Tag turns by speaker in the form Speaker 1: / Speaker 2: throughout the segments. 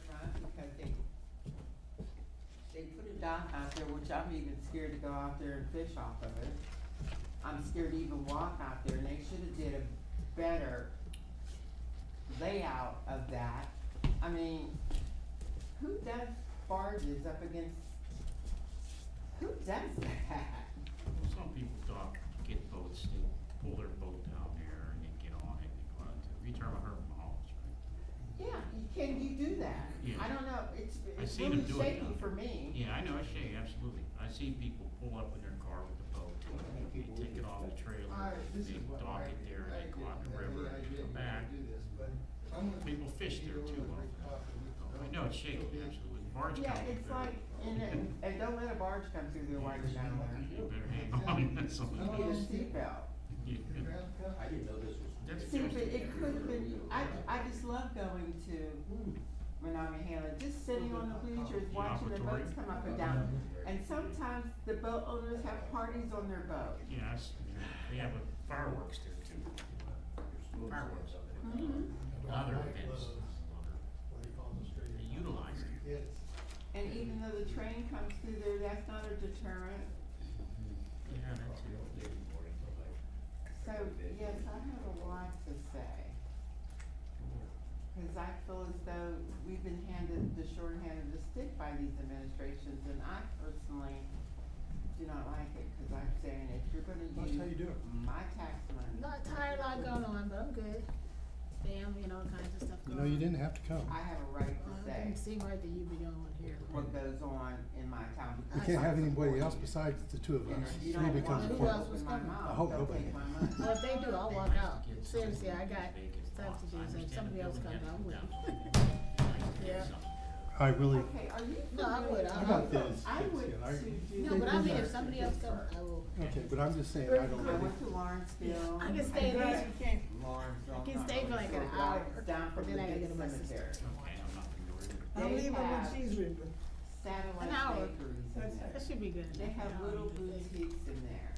Speaker 1: because they, they put a dock out there, which I'm even scared to go out there and fish off of it. I'm scared to even walk out there, and they should've did a better layout of that. I mean, who does barges up against, who does that?
Speaker 2: Well, some people dock, get boats, they pull their boat down there and then get on it and go out to, you turn about Herb Mahalis, right?
Speaker 1: Yeah, you can you do that?
Speaker 2: Yeah.
Speaker 1: I don't know, it's,
Speaker 2: I
Speaker 1: it's
Speaker 2: seen
Speaker 1: really
Speaker 2: them do it
Speaker 1: shaky
Speaker 2: now.
Speaker 1: for me.
Speaker 2: Yeah, I know, I see, absolutely. I see people pull up in their car with the boat, they take it off the trailer,
Speaker 3: I, this
Speaker 2: they
Speaker 3: is what
Speaker 2: dock
Speaker 3: I
Speaker 2: it there,
Speaker 3: I
Speaker 2: they go out in the river
Speaker 3: didn't have any
Speaker 2: and
Speaker 3: idea
Speaker 2: come
Speaker 3: you were
Speaker 2: back.
Speaker 3: gonna Do this, but I'm gonna.
Speaker 2: People fish
Speaker 3: you
Speaker 2: there
Speaker 3: know,
Speaker 2: too
Speaker 3: I'm gonna
Speaker 2: often.
Speaker 3: drink coffee with
Speaker 2: So,
Speaker 3: you.
Speaker 2: I know it's shaky, absolutely. Barge
Speaker 1: Yeah,
Speaker 2: company
Speaker 1: it's
Speaker 2: better-
Speaker 1: like, and, then- and don't let a barge come through there while you're down there.
Speaker 2: You better hang on, that's all.
Speaker 1: You
Speaker 3: Oh,
Speaker 1: need a seatbelt.
Speaker 2: Yeah.
Speaker 3: The ground cover.
Speaker 4: I didn't know this was.
Speaker 2: That's
Speaker 1: See,
Speaker 2: just-
Speaker 1: but it could've been, I, I just love going to
Speaker 4: Hmm.
Speaker 1: Menominee Hamlet, just sitting on the bleachers,
Speaker 2: The
Speaker 1: watching the boats
Speaker 2: operatorium.
Speaker 1: come up and down. And sometimes the boat owners have parties on their boat.
Speaker 2: Yeah, I s- they have a fireworks there too. Fireworks up there.
Speaker 1: Mhm.
Speaker 5: Mm-hmm.
Speaker 2: Other events,
Speaker 3: What do you call the street?
Speaker 2: they utilize it.
Speaker 3: It's,
Speaker 1: And even though the train comes through there, that's not a deterrent.
Speaker 2: Yeah, that's it.
Speaker 1: So, yes, I have a lot to say. Cause I feel as though we've been handed the shorthand of the stick by these administrations, and I personally do not like it, cause I'm saying if you're gonna use.
Speaker 5: That's how you do it.
Speaker 1: My tax money,
Speaker 6: Not entire lot going on, but I'm good. Spam, you know, all kinds of stuff
Speaker 5: You
Speaker 6: going
Speaker 5: know,
Speaker 6: on.
Speaker 5: you didn't have to come.
Speaker 1: I have a right to
Speaker 6: Well, It
Speaker 1: say
Speaker 6: didn't seem right that you'd be the only one here.
Speaker 1: what goes on in my town.
Speaker 5: We
Speaker 1: because
Speaker 5: can't
Speaker 1: I
Speaker 5: have anybody
Speaker 1: support
Speaker 5: else
Speaker 1: it.
Speaker 5: besides the two of
Speaker 1: And
Speaker 5: us.
Speaker 1: if you
Speaker 5: Three
Speaker 1: don't
Speaker 5: becomes
Speaker 1: want
Speaker 6: Who
Speaker 1: to
Speaker 6: else
Speaker 5: important.
Speaker 6: was
Speaker 1: open my
Speaker 5: I
Speaker 6: coming?
Speaker 5: hope
Speaker 1: mouth, don't
Speaker 5: nobody-
Speaker 1: take my
Speaker 6: Well,
Speaker 1: money.
Speaker 6: if they do, I'll walk out. Seriously, I got stuff to do, so if somebody else comes, I'm with. Yeah.
Speaker 5: I really,
Speaker 1: Okay, are you?
Speaker 6: No, I would,
Speaker 1: familiar-
Speaker 6: I-
Speaker 5: How about this?
Speaker 1: I would
Speaker 5: Yeah,
Speaker 1: to do.
Speaker 6: No, but I mean,
Speaker 5: Yeah.
Speaker 6: if somebody else comes, I will.
Speaker 5: okay, but I'm just saying, I don't
Speaker 1: I
Speaker 5: really,
Speaker 1: went to Lawrenceville.
Speaker 6: I can stay
Speaker 1: did-
Speaker 6: there.
Speaker 1: Lawrenceville.
Speaker 6: I can
Speaker 1: not
Speaker 6: stay for like an
Speaker 1: Lawrenceville, but
Speaker 6: hour,
Speaker 1: Down from
Speaker 6: but
Speaker 1: the
Speaker 6: then I gotta
Speaker 1: big
Speaker 6: get my sister.
Speaker 1: cemetery.
Speaker 2: Okay, I'm not gonna worry.
Speaker 1: They
Speaker 7: I'm leaving when
Speaker 1: have
Speaker 7: she's leaving.
Speaker 6: An hour.
Speaker 1: satellite bakeries in there.
Speaker 6: That should be good.
Speaker 1: They have
Speaker 6: No,
Speaker 1: little
Speaker 6: I don't think-
Speaker 1: boutiques in there.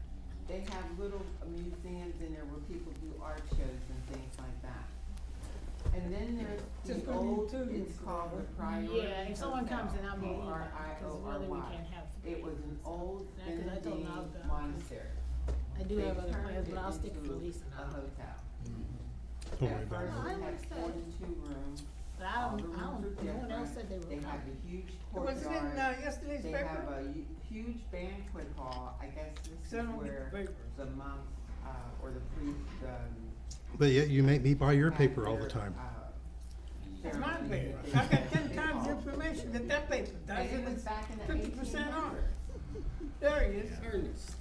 Speaker 1: They have little museums in there where people do art shows and things like that. And then there's
Speaker 7: Just
Speaker 1: the
Speaker 7: put
Speaker 1: old,
Speaker 7: you two
Speaker 1: it's
Speaker 7: in.
Speaker 1: called the Priority
Speaker 6: Yeah, if someone comes, then I'll be
Speaker 1: Hotel,
Speaker 6: in, because really we
Speaker 1: R.I.O.R.Y..
Speaker 6: can't have.
Speaker 1: It was an old
Speaker 6: Yeah, 'cause I don't
Speaker 1: Benedictine
Speaker 6: know about-
Speaker 1: monastery.
Speaker 6: I do have
Speaker 1: They
Speaker 6: other plans,
Speaker 1: turned
Speaker 6: but I'll
Speaker 1: it
Speaker 6: stick for
Speaker 1: into
Speaker 6: Lisa
Speaker 1: A
Speaker 6: now.
Speaker 1: hotel.
Speaker 5: Mm-hmm. don't worry about
Speaker 1: At
Speaker 6: No, I
Speaker 1: first, it had
Speaker 6: understand.
Speaker 1: forty-two rooms.
Speaker 6: But I
Speaker 1: All the
Speaker 6: don't,
Speaker 1: rooms
Speaker 6: I don't,
Speaker 1: are
Speaker 6: no one else
Speaker 1: different.
Speaker 6: said they were
Speaker 1: They have
Speaker 6: coming.
Speaker 1: a huge
Speaker 7: Was it in uh,
Speaker 1: courtyard.
Speaker 7: yesterday's
Speaker 1: They have
Speaker 7: paper?
Speaker 1: a hu- huge banquet hall. I guess this is
Speaker 7: Send me the
Speaker 1: where
Speaker 7: paper.
Speaker 1: the monks, uh, or the priests, um.
Speaker 5: But yet you make me buy your
Speaker 1: have
Speaker 5: paper all the
Speaker 1: their,
Speaker 5: time.
Speaker 1: uh,
Speaker 7: It's my
Speaker 1: ceremony
Speaker 7: paper.
Speaker 1: that they-
Speaker 7: I got
Speaker 1: that
Speaker 7: ten
Speaker 1: they
Speaker 7: times the
Speaker 1: call.
Speaker 7: information that that paper does,
Speaker 1: And it
Speaker 7: and
Speaker 1: was
Speaker 7: it's
Speaker 1: back in the
Speaker 7: fifty
Speaker 1: eighteen
Speaker 7: percent off.
Speaker 1: hundreds.
Speaker 7: There he is.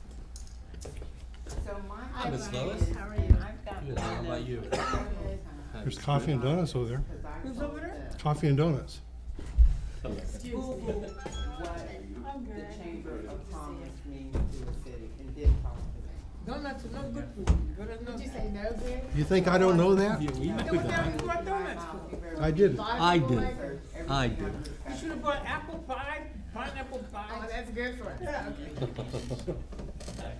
Speaker 1: So my.
Speaker 6: Hi,
Speaker 4: Miss
Speaker 1: idea
Speaker 4: Lois?
Speaker 1: is-
Speaker 6: How are
Speaker 1: and
Speaker 6: you?
Speaker 1: I've got
Speaker 4: Good, how
Speaker 1: one
Speaker 4: about
Speaker 1: of
Speaker 4: you?
Speaker 1: several
Speaker 6: Good.
Speaker 1: times,
Speaker 5: There's coffee and donuts over there.
Speaker 1: 'cause I
Speaker 7: Who's
Speaker 1: told
Speaker 7: over there?
Speaker 1: them,
Speaker 5: Coffee and donuts.
Speaker 6: Excuse me.
Speaker 1: Google what
Speaker 6: I'm
Speaker 1: the
Speaker 6: good.
Speaker 1: Chamber
Speaker 6: Good to
Speaker 1: of
Speaker 6: see you.
Speaker 1: Commerce means to a city and did talk to me.
Speaker 7: Donuts are no good for you, but I know
Speaker 6: Did you
Speaker 7: that.
Speaker 6: say no, Greg?
Speaker 5: You think I don't know that?
Speaker 7: Then what the hell you bought donuts for?
Speaker 5: I didn't.
Speaker 4: I
Speaker 6: Barbecue
Speaker 4: did.
Speaker 6: flavor.
Speaker 4: I did.
Speaker 7: You should've bought apple pie, pineapple
Speaker 6: Oh,
Speaker 7: pie.
Speaker 6: that's good for us.
Speaker 7: Yeah.
Speaker 6: Okay.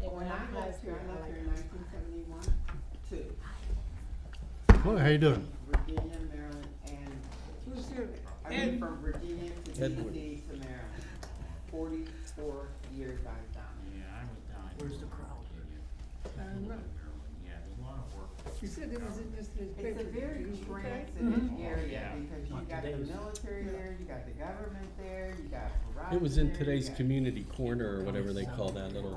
Speaker 1: When I left here, I left here in nineteen seventy-one, two,
Speaker 5: Well, how you doing?
Speaker 1: Virginia, Maryland, and,
Speaker 7: Who's here?
Speaker 1: I mean,
Speaker 7: And
Speaker 1: from Virginia to
Speaker 4: Edward.
Speaker 1: DC to Maryland. Forty-four years I've done.
Speaker 2: Yeah, I was down. Where's the crowd? Yeah, there's a lot of work.
Speaker 7: you said it was in yesterday's paper.
Speaker 1: It's a very
Speaker 7: Did you look at it?
Speaker 1: transitive area
Speaker 2: Yeah.
Speaker 1: because you
Speaker 2: Like
Speaker 1: got the
Speaker 2: today's-
Speaker 1: military there, you got the government there, you got Verizon
Speaker 4: It was in
Speaker 1: there, you
Speaker 4: today's
Speaker 1: got-
Speaker 4: community corner or whatever they call that little,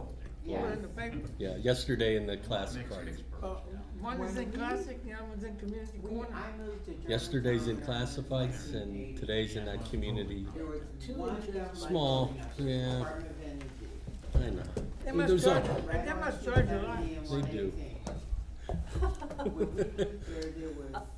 Speaker 7: Or
Speaker 1: Yes.
Speaker 7: in the paper.
Speaker 4: yeah, yesterday in the classic
Speaker 2: Mixed
Speaker 4: party.
Speaker 2: experts,
Speaker 7: Uh,
Speaker 2: yeah.
Speaker 7: One is
Speaker 1: When
Speaker 7: in
Speaker 1: we-
Speaker 7: classic, the other one's in community
Speaker 1: We-
Speaker 7: corner.
Speaker 1: I moved to Germantown.
Speaker 4: Yesterday's in
Speaker 1: when I was
Speaker 4: classifieds and
Speaker 1: 1980.
Speaker 4: today's in that community.
Speaker 1: There was
Speaker 6: Two
Speaker 1: one
Speaker 6: inches.
Speaker 1: of them, like,
Speaker 4: Small,
Speaker 1: you know,
Speaker 4: yeah.
Speaker 1: Department of Energy.
Speaker 4: I know.
Speaker 7: They
Speaker 4: It
Speaker 7: must
Speaker 4: goes
Speaker 7: charge,
Speaker 4: up.
Speaker 7: they must charge a lot.
Speaker 1: Right on
Speaker 4: They do.
Speaker 1: 270 and 118. When we moved there, there was